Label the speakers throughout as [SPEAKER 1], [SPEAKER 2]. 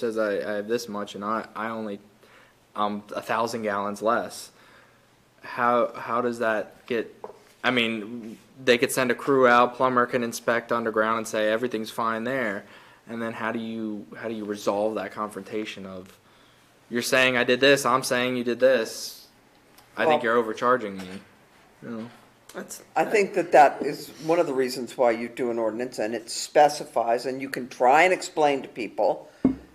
[SPEAKER 1] says I, I have this much and I, I only, um, a thousand gallons less. How, how does that get, I mean, they could send a crew out, plumber can inspect underground and say everything's fine there. And then how do you, how do you resolve that confrontation of, you're saying I did this, I'm saying you did this. I think
[SPEAKER 2] Well-
[SPEAKER 1] you're overcharging me. You know?
[SPEAKER 3] That's,
[SPEAKER 2] I think that that is one of the reasons why you do an ordinance, and it specifies, and you can try and explain to people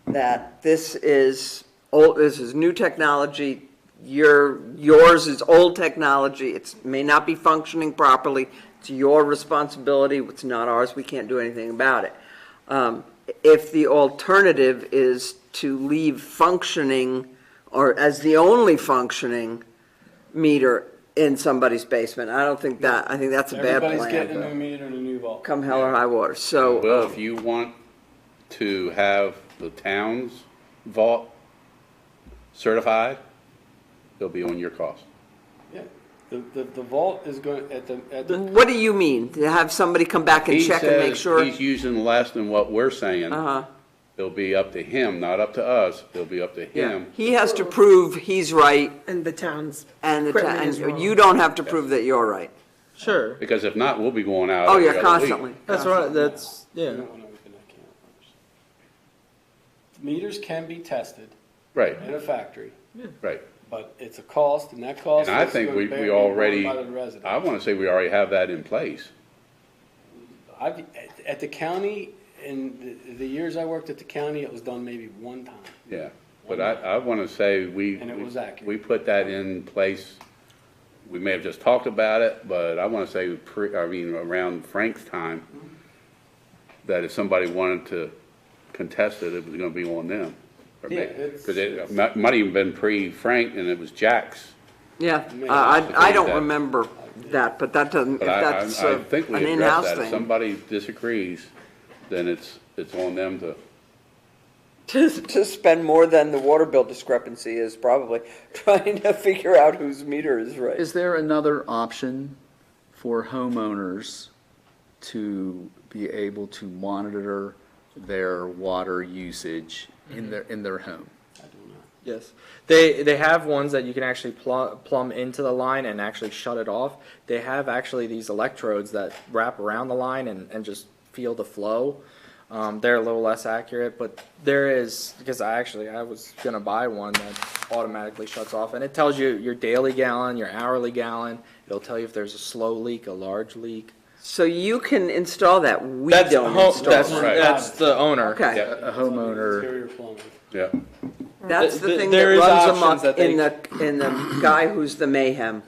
[SPEAKER 2] that this is old, this is new technology, your, yours is old technology, it's, may not be functioning properly, it's your responsibility, it's not ours, we can't do anything about it. Um, If the alternative is to leave functioning, or as the only functioning meter in somebody's basement, I don't think that, I think that's a bad
[SPEAKER 4] Everybody's getting a new
[SPEAKER 2] plan.
[SPEAKER 4] meter and a new vault.
[SPEAKER 2] Come hell or high water, so.
[SPEAKER 5] Well,
[SPEAKER 2] um,
[SPEAKER 5] if you want to have the town's vault certified, it'll be on your cost.
[SPEAKER 4] Yeah. The, the, the vault is going, at the, at the,
[SPEAKER 2] What do you mean? To have somebody come back and
[SPEAKER 5] He
[SPEAKER 2] check and make
[SPEAKER 5] says
[SPEAKER 2] sure?
[SPEAKER 5] He's using less than what we're saying.
[SPEAKER 2] Uh-huh.
[SPEAKER 5] It'll be up to him, not up to us. It'll be up to him.
[SPEAKER 2] He has to prove he's right
[SPEAKER 3] and the town's
[SPEAKER 2] and the, ta-
[SPEAKER 3] equipment is
[SPEAKER 2] and
[SPEAKER 3] wrong.
[SPEAKER 2] you don't have to prove that you're right.
[SPEAKER 1] Sure.
[SPEAKER 5] Because if not, we'll be going out.
[SPEAKER 2] Oh,
[SPEAKER 5] every
[SPEAKER 2] yeah,
[SPEAKER 5] other week.
[SPEAKER 2] constantly.
[SPEAKER 1] That's right, that's,
[SPEAKER 4] I
[SPEAKER 1] yeah.
[SPEAKER 4] don't want to open that can of worms. Meters can be tested
[SPEAKER 5] Right,
[SPEAKER 4] in a factory,
[SPEAKER 5] right.
[SPEAKER 4] but it's a cost, and that cost.
[SPEAKER 5] And I
[SPEAKER 4] is
[SPEAKER 5] think
[SPEAKER 4] gonna
[SPEAKER 5] we,
[SPEAKER 4] bear-
[SPEAKER 5] we
[SPEAKER 4] be borne
[SPEAKER 5] already,
[SPEAKER 4] By the resident.
[SPEAKER 5] I want to say we already have that in place.
[SPEAKER 4] I've, at, at the county, in the, the years I worked at the county, it was done maybe one time.
[SPEAKER 5] Yeah, but I, I want to say we.
[SPEAKER 4] And it was accurate.
[SPEAKER 5] We put that in place, we may have just talked about it, but I want to say, pre, I mean, around Frank's time,
[SPEAKER 4] Mm-hmm.
[SPEAKER 5] that if somebody wanted to contest it, it was going to be on them. or me.
[SPEAKER 4] Yeah, it's-
[SPEAKER 5] Because it might, might even been pre-Frank and it was Jack's.
[SPEAKER 2] Yeah, Uh,
[SPEAKER 4] Maybe
[SPEAKER 2] I,
[SPEAKER 5] that's the
[SPEAKER 2] I I
[SPEAKER 5] thing
[SPEAKER 2] don't
[SPEAKER 5] that-
[SPEAKER 2] remember that, but that doesn't, if
[SPEAKER 5] But I, I,
[SPEAKER 2] that's uh,
[SPEAKER 5] I think
[SPEAKER 2] an
[SPEAKER 5] we
[SPEAKER 2] in-house
[SPEAKER 5] addressed that. If
[SPEAKER 2] thing.
[SPEAKER 5] somebody disagrees, then it's, it's on them to,
[SPEAKER 2] To,
[SPEAKER 6] to spend more than the water bill discrepancy is probably trying to figure out whose meter is right.
[SPEAKER 7] Is there another option for homeowners to be able to monitor their water usage in their, in their home?
[SPEAKER 1] Yes, they they have ones that you can actually pl- plumb into the line and actually shut it off. They have actually these electrodes that wrap around the line and, and just feel the flow. Um, they're a little less accurate, but there is because I actually I was gonna buy one that automatically shuts off and it tells you your daily gallon, your hourly gallon. It'll tell you if there's a slow leak, a large leak.
[SPEAKER 2] so you can install that, we
[SPEAKER 1] that's
[SPEAKER 2] don't
[SPEAKER 1] ho-
[SPEAKER 2] install
[SPEAKER 1] that's
[SPEAKER 2] it.
[SPEAKER 4] it.
[SPEAKER 1] that's the owner.
[SPEAKER 2] Okay,
[SPEAKER 5] Yeah.
[SPEAKER 7] A homeowner,
[SPEAKER 4] Interior plumbing.
[SPEAKER 5] yeah.
[SPEAKER 2] that's the
[SPEAKER 1] Th-
[SPEAKER 2] thing that
[SPEAKER 1] there is
[SPEAKER 2] runs
[SPEAKER 1] options that
[SPEAKER 2] amok
[SPEAKER 1] they
[SPEAKER 2] in the, in the guy who's the mayhem.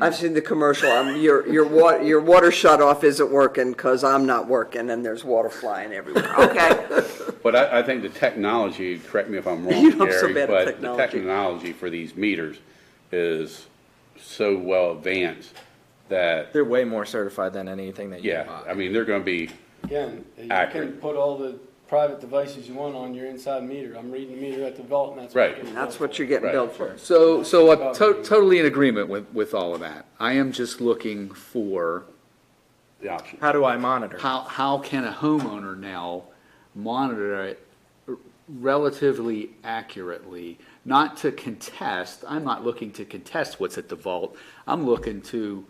[SPEAKER 2] I've seen the commercial, um, your, your water, your water shut off isn't working because I'm not working and there's water flying everywhere, okay?
[SPEAKER 5] But I, I think the technology, correct me if I'm
[SPEAKER 2] You
[SPEAKER 5] wrong,
[SPEAKER 2] know, I'm so
[SPEAKER 5] Gary,
[SPEAKER 2] bad at
[SPEAKER 5] but the
[SPEAKER 2] technology.
[SPEAKER 5] technology for these meters is so well advanced that,
[SPEAKER 1] They're way more certified than anything that you can
[SPEAKER 5] yeah,
[SPEAKER 1] buy.
[SPEAKER 5] I mean, they're gonna be,
[SPEAKER 4] Again, you can
[SPEAKER 5] Accurate.
[SPEAKER 4] put all the private devices you want on your inside meter. I'm reading the meter at the vault, and that's.
[SPEAKER 5] Right.
[SPEAKER 4] getting
[SPEAKER 2] That's
[SPEAKER 4] billed
[SPEAKER 2] what
[SPEAKER 4] for.
[SPEAKER 2] you're getting
[SPEAKER 5] Right.
[SPEAKER 2] billed for.
[SPEAKER 7] so, so I'm to- totally in agreement with, with all of that. I am just looking for
[SPEAKER 5] the option.
[SPEAKER 1] How do I monitor?
[SPEAKER 7] how, how can a homeowner now monitor it relatively accurately? Not to contest, I'm not looking to contest what's at the vault, I'm looking to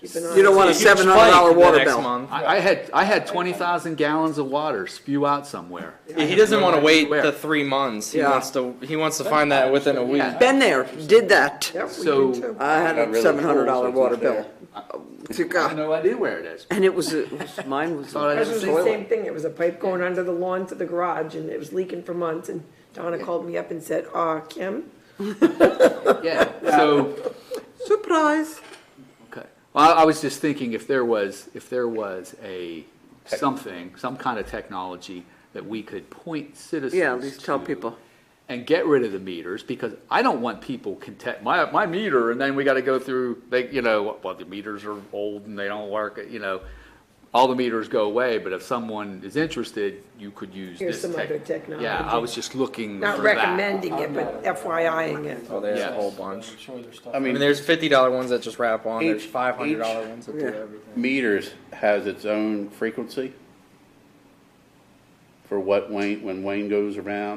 [SPEAKER 2] You don't want a
[SPEAKER 1] Huge
[SPEAKER 2] seven hundred dollar
[SPEAKER 1] spike the
[SPEAKER 2] water
[SPEAKER 1] next
[SPEAKER 2] bill.
[SPEAKER 1] month.
[SPEAKER 7] I, I had I had twenty thousand gallons of water spew out somewhere.
[SPEAKER 1] He doesn't want to wait
[SPEAKER 7] Where?
[SPEAKER 1] the three months. He
[SPEAKER 2] Yeah.
[SPEAKER 1] wants to. He wants to find that within a week.
[SPEAKER 7] Yeah.
[SPEAKER 2] Been there, did that.
[SPEAKER 7] So
[SPEAKER 2] I had
[SPEAKER 5] Got rid
[SPEAKER 2] a
[SPEAKER 5] of
[SPEAKER 2] seven hundred dollar
[SPEAKER 5] the tools,
[SPEAKER 2] water
[SPEAKER 5] it's
[SPEAKER 2] bill. To
[SPEAKER 7] I have
[SPEAKER 2] God.
[SPEAKER 7] no idea where it is.
[SPEAKER 2] And it was, it was- mine was.
[SPEAKER 7] Thought I
[SPEAKER 3] Ours
[SPEAKER 7] just
[SPEAKER 3] was
[SPEAKER 7] saw
[SPEAKER 3] the same thing. It was a pipe going under the lawn to the garage and it was leaking for months and Donna called me up and said, uh, Kim?
[SPEAKER 7] it. Yeah. So
[SPEAKER 2] Surprise.
[SPEAKER 7] okay. Well, I- I was just thinking if there was if there was a something some kind of technology that we could point citizens.
[SPEAKER 2] Yeah, at least tell
[SPEAKER 7] to
[SPEAKER 2] people.
[SPEAKER 7] And get rid of the meters because I don't want people content my my meter and then we got to go through they you know well the meters are old and they don't work you know. All the meters go away, but if someone is interested, you could use
[SPEAKER 3] Here's
[SPEAKER 7] this
[SPEAKER 3] some
[SPEAKER 7] tech-
[SPEAKER 3] other technology.
[SPEAKER 7] Yeah, I was just looking
[SPEAKER 3] Not
[SPEAKER 7] for that.
[SPEAKER 3] recommending it, but FYI-ing it.
[SPEAKER 1] Oh, there's
[SPEAKER 7] Yes.
[SPEAKER 1] a whole
[SPEAKER 4] I'm
[SPEAKER 1] bunch.
[SPEAKER 4] sure there's stuff.
[SPEAKER 5] I
[SPEAKER 1] I mean,
[SPEAKER 5] mean,
[SPEAKER 1] there's fifty dollar ones that just wrap on. There's
[SPEAKER 5] Each-
[SPEAKER 1] five hundred dollar
[SPEAKER 5] each-
[SPEAKER 1] ones that do
[SPEAKER 2] yeah.
[SPEAKER 1] everything.
[SPEAKER 5] meters has its own frequency for what Wayne, when Wayne goes around